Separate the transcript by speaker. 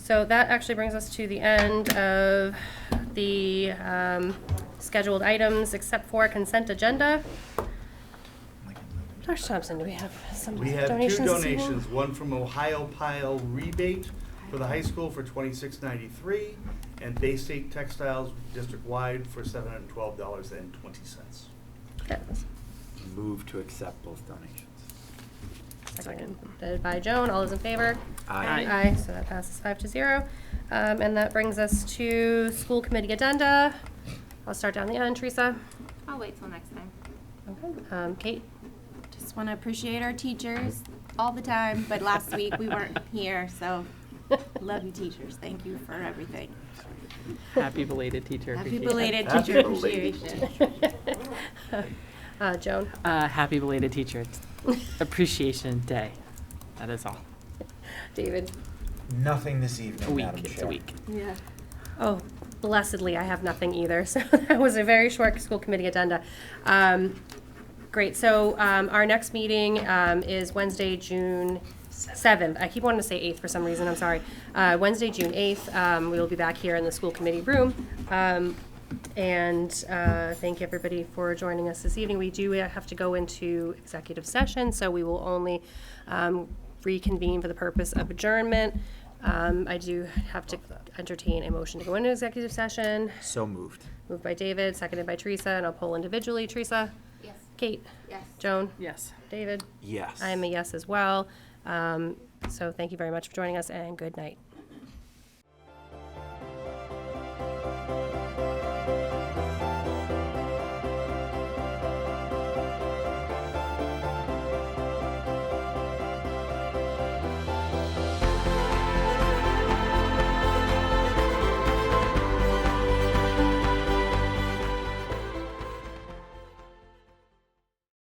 Speaker 1: So that actually brings us to the end of the um, scheduled items, except for consent agenda. Dr. Thompson, do we have some
Speaker 2: We
Speaker 1: donations?
Speaker 2: have two
Speaker 1: this evening?
Speaker 2: donations, one from Ohio Pile Rebate for the high school for twenty-six ninety-three, and Bay State Textiles district-wide for seven hundred and twelve dollars and twenty cents.
Speaker 1: Yes.
Speaker 3: Move to accept both donations.
Speaker 1: Second. Seconded by Joan, all those in favor?
Speaker 3: Aye.
Speaker 1: Aye, so that passes five to zero. Um, And that brings us to school committee addenda. I'll start down the end, Teresa.
Speaker 4: I'll wait till next time.
Speaker 1: Okay. Um, Kate?
Speaker 4: Just want to appreciate our teachers all the time, but last week we weren't here, so love you teachers. Thank you for everything.
Speaker 5: Happy belated teacher.
Speaker 4: Happy
Speaker 5: appreciation.
Speaker 4: belated
Speaker 3: Happy
Speaker 4: teacher
Speaker 3: belated
Speaker 4: appreciation.
Speaker 1: Uh, Joan?
Speaker 5: Uh, happy belated teacher appreciation day. That is all.
Speaker 1: David?
Speaker 6: Nothing this
Speaker 5: A
Speaker 6: evening,
Speaker 5: week.
Speaker 6: Madam
Speaker 5: It's a
Speaker 6: Chair.
Speaker 5: week.
Speaker 4: Yeah.
Speaker 1: Oh, blessedly, I have nothing either. So that was a very short school committee agenda. Um, Great, so um, our next meeting um, is Wednesday, June 7th. I keep wanting to say 8th for some reason, I'm sorry. Uh, Wednesday, June 8th, um, we will be back here in the school committee room. Um, And uh, thank everybody for joining us this evening. We do have to go into executive session, so we will only um, reconvene for the purpose of adjournment. Um, I do have to entertain a motion to go into executive session.
Speaker 3: So moved.
Speaker 1: Moved by David, seconded by Teresa, and I'll poll individually. Teresa?
Speaker 4: Yes.
Speaker 1: Kate?
Speaker 4: Yes.
Speaker 1: Joan?
Speaker 5: Yes.
Speaker 1: David?
Speaker 3: Yes.
Speaker 1: I am a yes as well. Um, So thank you very much for joining us, and good night.